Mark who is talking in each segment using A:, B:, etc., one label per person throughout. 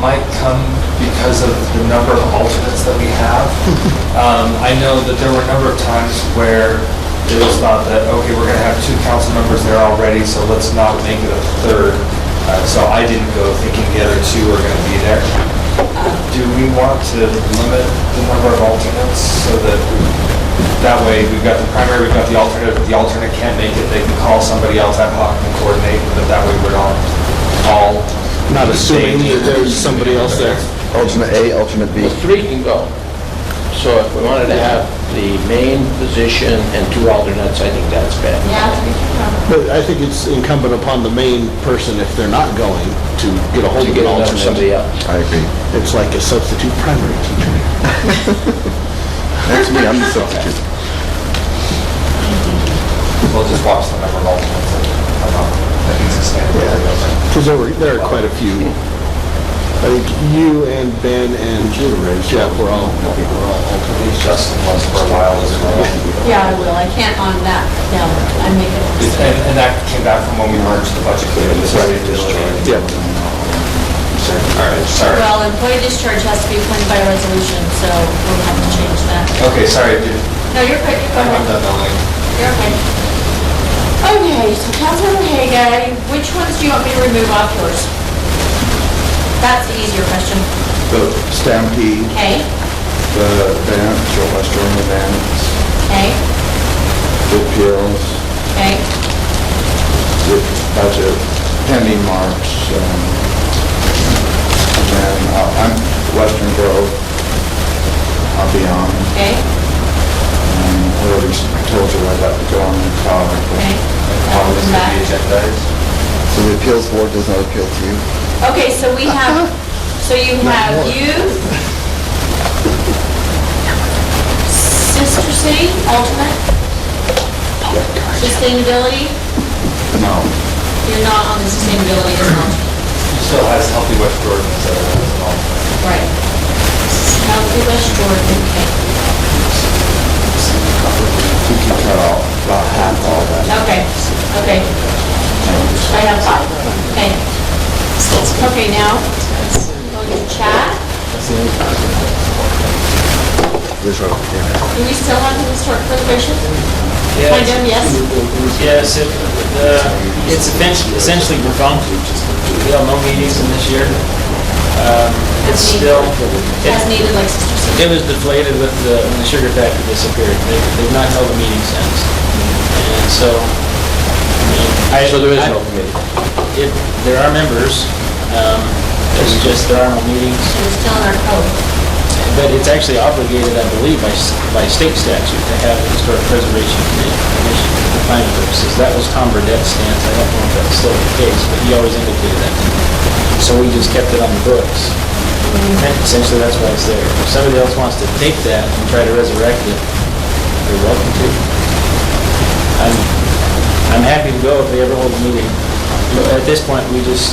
A: might come because of the number of alternates that we have. Um, I know that there were a number of times where it was thought that, okay, we're going to have two council members there already, so let's not make it a third. Uh, So I didn't go thinking the other two were going to be there. Do we want to limit the number of alternates so that, that way, we've got the primary, we've got the alternate, if the alternate can't make it, they can call somebody else ad hoc and coordinate, but that way we're not all.
B: Not assuming that there's somebody else there.
C: Alternate A, alternate B.
D: The three can go. So if we wanted to have the main position and two alternates, I think that's bad.
E: Yeah.
B: But I think it's incumbent upon the main person, if they're not going, to get a hold
D: To
B: of
D: get
B: an
D: another somebody
B: alternate.
D: else.
C: I agree.
B: It's like a substitute primary teacher.
C: That's me, I'm the substitute.
A: We'll just watch the number of alternates that come up. That needs to stand.
B: Because there were, there are quite a few. I think you and Ben and Jeff were all, were all alternates.
A: Justin was for a while as well.
E: Yeah, I will, I can't on that, no, I'm making,
A: And, and that came back from when we merged the budget committee. This is district.
B: Yeah.
A: All right, sorry.
E: well, employee discharge has to be appointed by resolution, so we'll have to change that.
A: Okay, sorry, dude.
E: No, you're quick,
A: I'm
E: go ahead.
A: done building.
E: You're okay. Okay, so Councilmember Haga, which ones do you want me to remove off yours? That's the easier question.
C: The Stampede,
E: Okay,
C: the band, Joe Western, the band,
E: okay,
C: the Pills,
E: okay,
C: the budget, Penny Marks, um, and then uh, I'm Western Grove. I'll be on,
E: okay,
C: and I already told you I'd have to go on the call.
E: okay. I'll
A: All
E: move
A: this is
E: them back.
A: the agenda is.
C: So the appeals board does not appeal to you?
E: Okay, so we have, so you have you, Sister City, alternate, sustainability,
C: No.
E: you're not on the sustainability as an alternate.
A: Still has healthy West Jordan as a, as an alternate.
E: Right. Healthy West Jordan, okay.
C: You can cut out about half all that.
E: Okay, okay. I have five, okay. Okay, now, go to chat. Do we still have the historic preservation? Kind of, yes?
F: Yeah, so the, it's eventually- essentially defunct. We held no meetings in this year. Um, It's still, it
E: As needed, like Sister City.
F: it was deflated with the, when the sugar factory disappeared. They- They've not held a meeting since. And so, I mean, I...
D: So there is
F: I-
D: no committee.
F: It, there are members, um, there's just, there are no meetings.
E: It was oh, still in our code.
F: But it's actually obligated, I believe, by, s- by state statute to have a historic preservation committee commission for planning purposes. That was Tom Burdett's stance. I don't know if that's still the case, but he always indicated that. to me. So we just kept it on the books. And Essentially, that's why it's there. If somebody else wants to take that and try to resurrect it, they're welcome to. I'm, I'm happy to go if they ever hold a meeting. But at this point, we just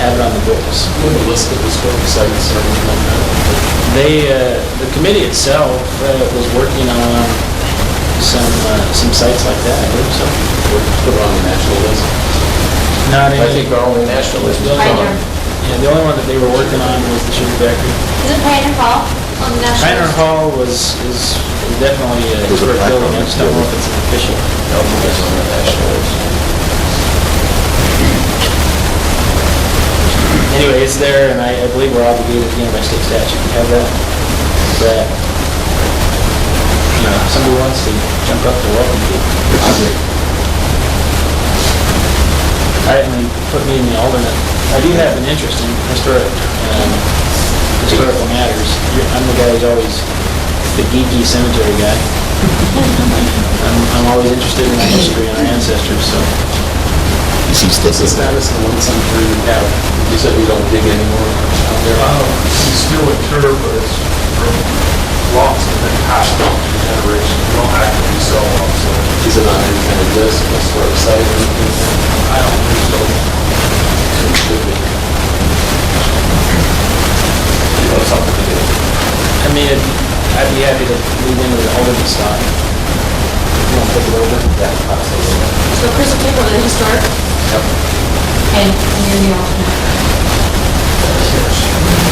F: have it on the books. They, uh, the committee itself uh, was working on some, uh, some sites like that, I believe so.
D: Put it on the national list.
F: Not
D: I think
F: any,
D: our only national list is
E: Pioneer.
D: on.
F: yeah, the only one that they were working on was the sugar factory.
E: Is it Pioneer Hall on the national?
F: Pioneer Hall was, is is definitely uh, a
C: Was it
F: historic
C: Pioneer
F: building, I just don't know if it's an official.
D: No, it's on the national list.
F: Anyway, it's there, and I, I believe we're obligated, again by state statute, to have that, that, you know, if somebody wants to jump up, they're welcome to. I mean, put me in the alternate. I do have an interest in historic, um, historical matters. You're- I'm the guy who's always the geeky cemetery guy. I'm, I'm always interested in our history and our ancestors, so.
D: What's the status of the one cemetery we have? You said we don't dig anymore out there.
G: It's still a term, but it's from lots of the past generation, we don't actively sell them, so
D: Is it on any kind of list, a historic site or anything?
G: I don't think so.
D: It should be. You know, something to do.
F: I mean, I'd I'd be happy to move into the alternate slot. You want to take it over? Yeah, absolutely.
E: So Chris will take over the historic? Yep. And you're the alternate.